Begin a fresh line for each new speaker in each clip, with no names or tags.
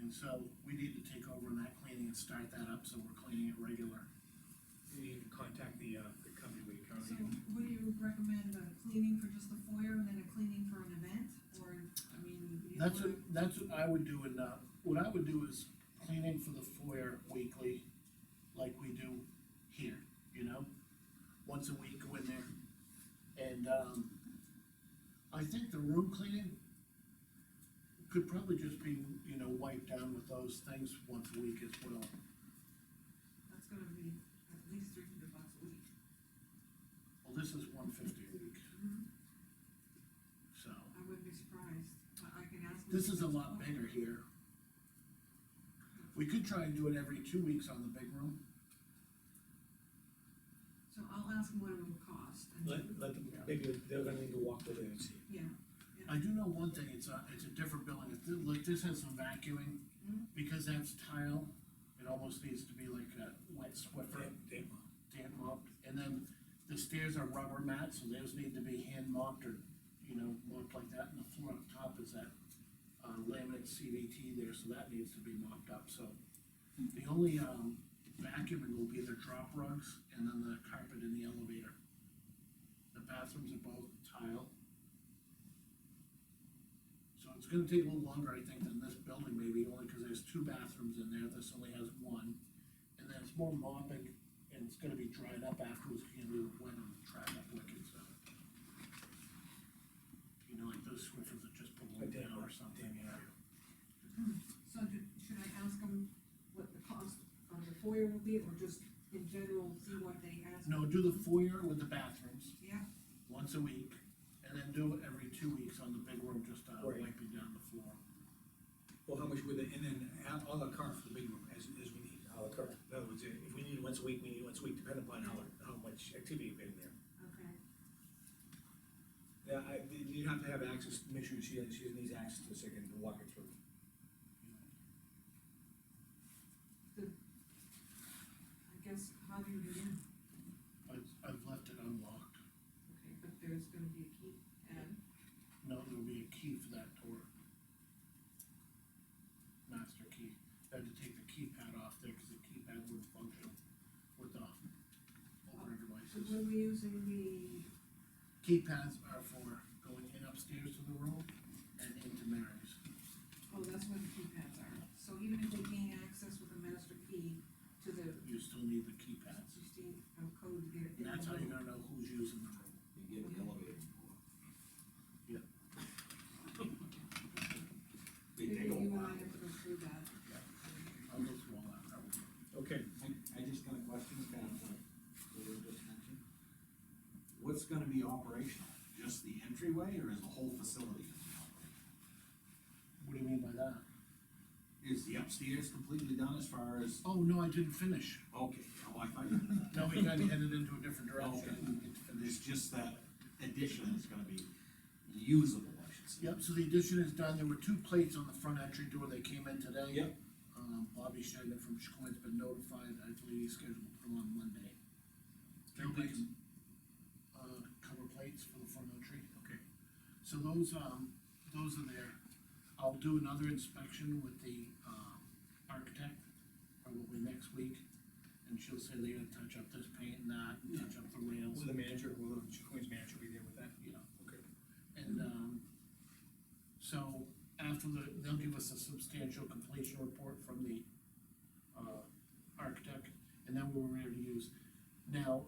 And so we need to take over on that cleaning and start that up, so we're cleaning it regular.
You need to contact the, uh, the company we
So
currently,
what do you recommend, a cleaning for just the foyer and then a cleaning for an event, or, I mean, you
That's what,
wanna-
that's what I would do, and, uh, what I would do is cleaning for the foyer weekly, like we do here, you know? Once a week, go in there, and, um, I think the room cleaning could probably just be, you know, wiped down with those things once a week as well.
that's gonna be at least three hundred bucks a week.
Well, this is one fifty a week,
Mm-hmm.
so,
I wouldn't be surprised, I, I can ask.
this
Mr.
is a lot
Fitzpatrick.
bigger here. We could try and do it every two weeks on the big room.
So I'll ask him what it will cost, and,
let, let them, maybe they're gonna need to walk over there and see.
yeah,
I do know one thing, it's a, it's a different building, it's, like, this has some vacuuming,
Mhm.
because that's tile, it almost needs to be like a wet
They,
swiffer,
they,
damp mopped, and then the stairs are rubber mats, so those need to be hand mopped or, you know, mopped like that, and the floor up top is that uh, laminate CVT there, so that needs to be mopped up, so. The only, um, vacuuming will be the drop rugs, and then the carpet in the elevator. The bathrooms are both tile. So it's gonna take a little longer, I think, than this building maybe, only because there's two bathrooms in there, this only has one. And then it's more mopping, and it's gonna be dried up afterwards, you can do wet and dry up wicked, so. You know, like those switches that just
they,
blow
they,
down or something.
so do- should I ask him what the cost of the foyer will be, or just in general, see what they ask?
No, do the foyer with the bathrooms
Yeah,
once a week, and then do it every two weeks on the big room, just uh,
Right.
wiping down the floor.
Well, how much would they, and then add all the cart for the big room, as, as we need.
How it occurred. In other words, if we need it once a week, we need it once a week, depending upon how, how much activity you've been there.
okay,
Yeah, I, you have to have access, make sure she, she needs access to a second to walk it through.
I guess, how do you do that?
I, I've left it unlocked.
Okay, but there's gonna be a key, and,
No, there'll be a key for that door. Master key. I had to take the keypad off there, cause the keypad wouldn't function with the opener
so
devices.
when we're using the
Keypads are for going in upstairs to the room and into Mary's.
Oh, that's where the keypads are, so even if they gain access with a master key to the,
You still need the keypads.
you see, a code to get it.
And that's how you're gonna know who's using the room.
You get the elevator.
Yep.
They take a
You and I
while.
have to go through that.
I'll go through all that. I will.
Okay,
I, I just got a question, uh, kind of like, what you just mentioned. What's gonna be operational? Just the entryway or is the whole facility gonna be operational?
What do you mean by that?
Is the upstairs completely done as far as,
Oh, no, I didn't finish.
okay, oh, I thought you meant that.
No, we kinda headed into a different
Okay.
direction. We didn't finish.
There's just that addition is gonna be usable, I should say.
Yep, so the addition is done, there were two plates on the front entry door, they came in today.
Yep.
Um, Bobby Schneider from Chicoine's been notified, I believe he's scheduled to put them on Monday. They'll be,
plates?
Uh, cover plates for the front entry.
Okay.
So those, um, those are there. I'll do another inspection with the, um, architect, probably next week. And she'll say they're gonna touch up this paint and that, and touch up the rails.
will the manager, will the Queen's manager be there with that?
you know.
Okay.
And, um, so after the, they'll give us a substantial completion report from the, uh, architect, and then we're ready to use. Now,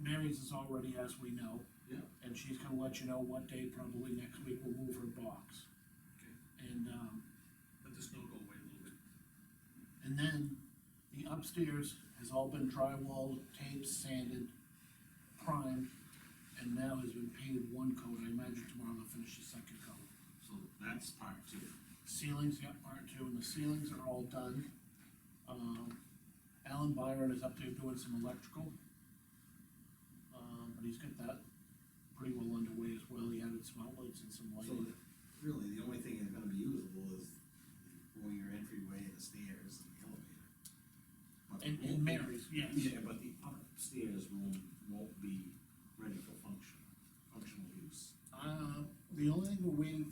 Mary's is already, as we know.
Yeah.
And she's gonna let you know what day, probably next week, we'll move her box. And, um,
Let the snow go away a little bit.
and then the upstairs has all been drywalled, taped, sanded, primed, and now has been painted one coat. I imagine tomorrow they'll finish the second coat.
So that's part two.
Ceilings, yeah, part two, and the ceilings are all done. Um, Alan Byron is up there doing some electrical. Um, but he's got that pretty well underway as well, he added some outlets and some
So
lighting.
the- really, the only thing that's gonna be usable is going your entryway and the stairs and the elevator. But the
And,
room-
and Mary's, yes.
Yeah, but the upstairs room won't be ready for function, functional use.
Uh, the only thing we're waiting